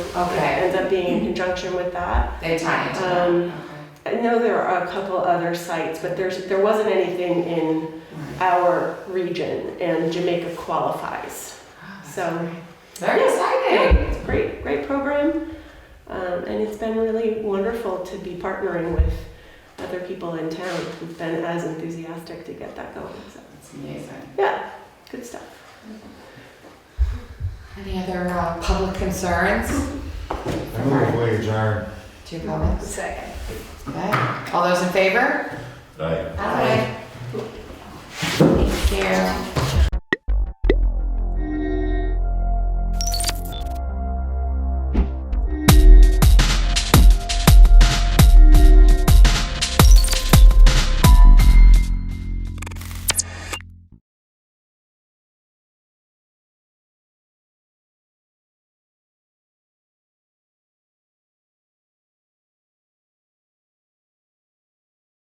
Okay. Ends up being in conjunction with that. They tie it to that, Um, okay. I know there are a couple other sites, but there's, there wasn't anything in Right. our region and Jamaica qualifies. So, Very exciting. it's a great, great program. Um, and it's been really wonderful to be partnering with other people in town who've been as enthusiastic to get that going. So, It's amazing. yeah, good stuff. Any other uh, public concerns? I move we adjourn. Two comments? Second. Okay. All those in favor? Aye. Aye. Thank you.